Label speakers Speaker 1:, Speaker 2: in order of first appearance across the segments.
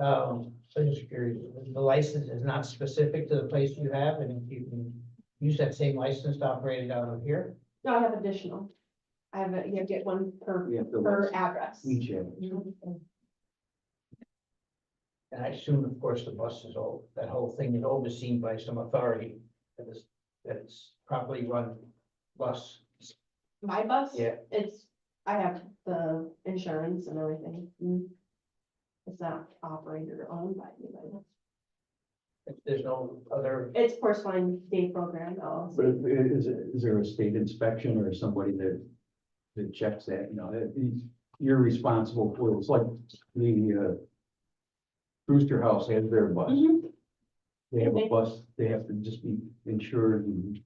Speaker 1: um, social security, the license is not specific to the place you have, and if you can use that same license to operate it out of here.
Speaker 2: No, I have additional. I have, a- you get one per,
Speaker 3: We have to
Speaker 2: per
Speaker 3: list
Speaker 2: address.
Speaker 3: each of
Speaker 1: And I assume, of course, the bus is all, that whole thing is overseen by some authority that is, that it's properly run bus.
Speaker 2: My bus?
Speaker 1: Yeah.
Speaker 2: It's, I have the insurance and everything. It's not operated or owned by anybody.
Speaker 1: If there's no other,
Speaker 2: It's Porcelain Day Program,
Speaker 3: them.
Speaker 2: LLC.
Speaker 3: But if- is, is there a state inspection or somebody that, that checks that, you know, that these- you're responsible for, it's like the, uh, Brewster House has their bus,
Speaker 2: Mhm.
Speaker 3: they have a
Speaker 2: Okay.
Speaker 3: bus, they have to just be insured and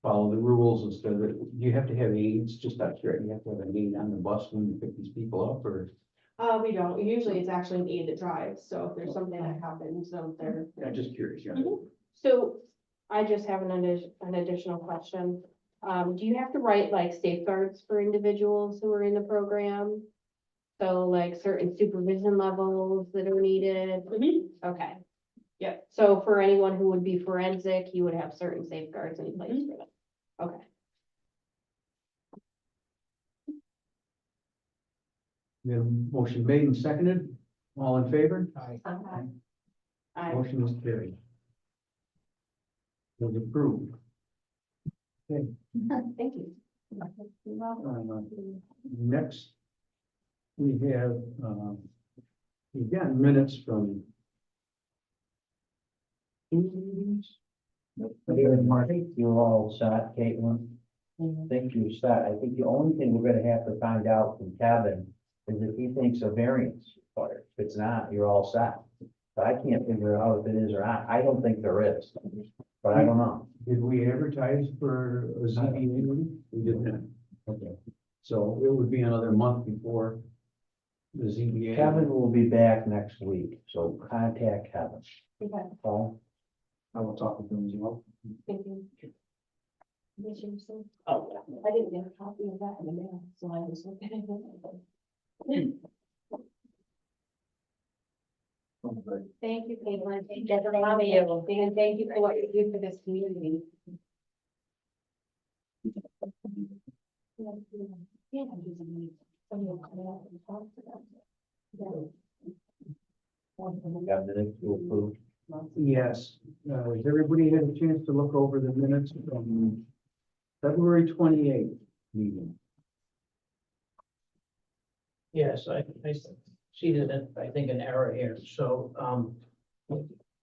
Speaker 3: follow the rules instead of, you have to have aides, just not sure, you have to have an aide on the bus when you pick these people up, or?
Speaker 2: Uh, we don't, usually it's actually an aid that drives, so if there's something that happens, so they're.
Speaker 3: I'm just curious, you know.
Speaker 2: Mhm. So I just have an addi- an additional question. Um, do you have to write like safeguards for individuals who are in the program? So like certain supervision levels that are needed? Okay. Yep. So for anyone who would be forensic, you would have certain safeguards in place for them. Okay.
Speaker 3: We have a motion made and seconded, all in favor?
Speaker 1: I,
Speaker 2: Okay. I,
Speaker 3: Motion is carried. Was approved.
Speaker 2: thank you.
Speaker 3: Uh, Next, we have, um, again, minutes from two meetings?
Speaker 4: Mayor and Mark, I think you're all set, Caitlin. I think you're set. I think the only thing we're gonna have to find out from Kevin is if he thinks a variance is required. If it's not, you're all set. But I can't figure out if it is or not. I don't think there is, but I don't know.
Speaker 3: Did we advertise for a ZBA meeting? We did not. Okay. So it would be another month before the ZBA.
Speaker 4: Kevin will be back next week, so contact Kevin.
Speaker 2: Okay,
Speaker 4: Oh,
Speaker 3: I will talk with him as well.
Speaker 2: thank you. I didn't get a copy of that in the mail, so I was looking at it. Thank you, Caitlin. Thank you for allowing you. And thank you for what you do for this community.
Speaker 4: Kevin, did you approve?
Speaker 3: Yes, uh, has everybody had a chance to look over the minutes from February twenty-eighth meeting?
Speaker 1: yes, I, I see that, I think, an error here, so, um,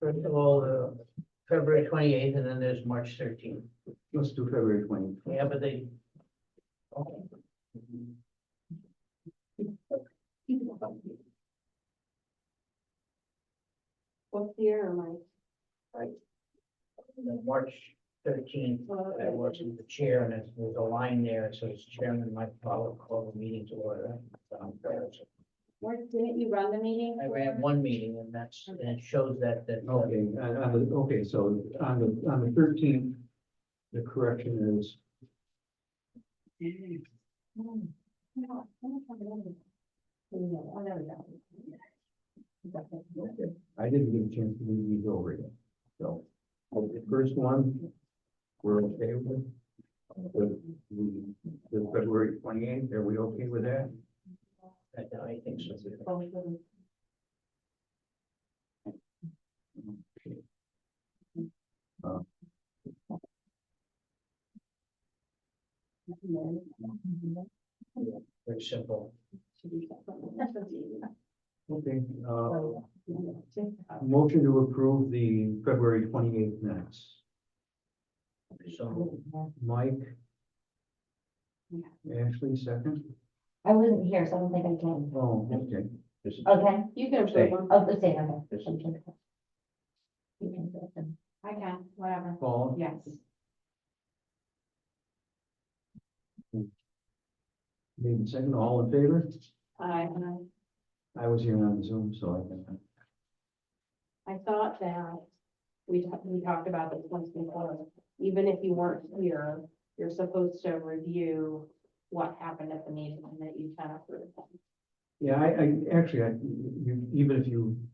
Speaker 1: first of all, uh, February twenty-eighth, and then there's March thirteenth.
Speaker 3: Let's do February twenty.
Speaker 1: Yeah, but they, oh,
Speaker 2: What's the year, Mike?
Speaker 1: the March thirteenth,
Speaker 2: Well,
Speaker 1: I was with the chair, and it's- there's a line there, so it's chairman might follow, call the meeting to order. Um,
Speaker 2: Mark, didn't you run the meeting?
Speaker 1: I ran one meeting, and that's, and it shows that, that. uh,
Speaker 3: Okay, on, on the, okay, so on the, on the thirteenth, the correction is,
Speaker 2: Hmm. No, I'm not talking about it. No, I never got it.
Speaker 3: okay, I didn't get a chance to read these over yet. So, well, the first one, we're okay with. The, the- the February twenty-eighth, are we okay with that?
Speaker 1: I I think so. Very simple.
Speaker 3: Okay, uh, motion to approve the February twenty-eighth minutes.
Speaker 1: So,
Speaker 3: Mike?
Speaker 2: Yeah.
Speaker 3: Ashley, second?
Speaker 5: I wasn't here, so I don't think I can.
Speaker 3: Oh, okay.
Speaker 4: This is-
Speaker 5: Okay,
Speaker 2: You can
Speaker 4: Stay.
Speaker 2: approve one.
Speaker 5: oh, the same, okay.
Speaker 4: This is-
Speaker 5: You can do it then.
Speaker 2: I can, whatever.
Speaker 3: Paul?
Speaker 2: Yes.
Speaker 3: Made and second, all in favor?
Speaker 2: I,
Speaker 3: I was here on Zoom, so I can.
Speaker 2: I thought that we, ta- we talked about this once before. Even if you weren't here, you're supposed to review what happened at the meeting and that you kind of approved.
Speaker 3: Yeah, I, I, actually, I, you, even if you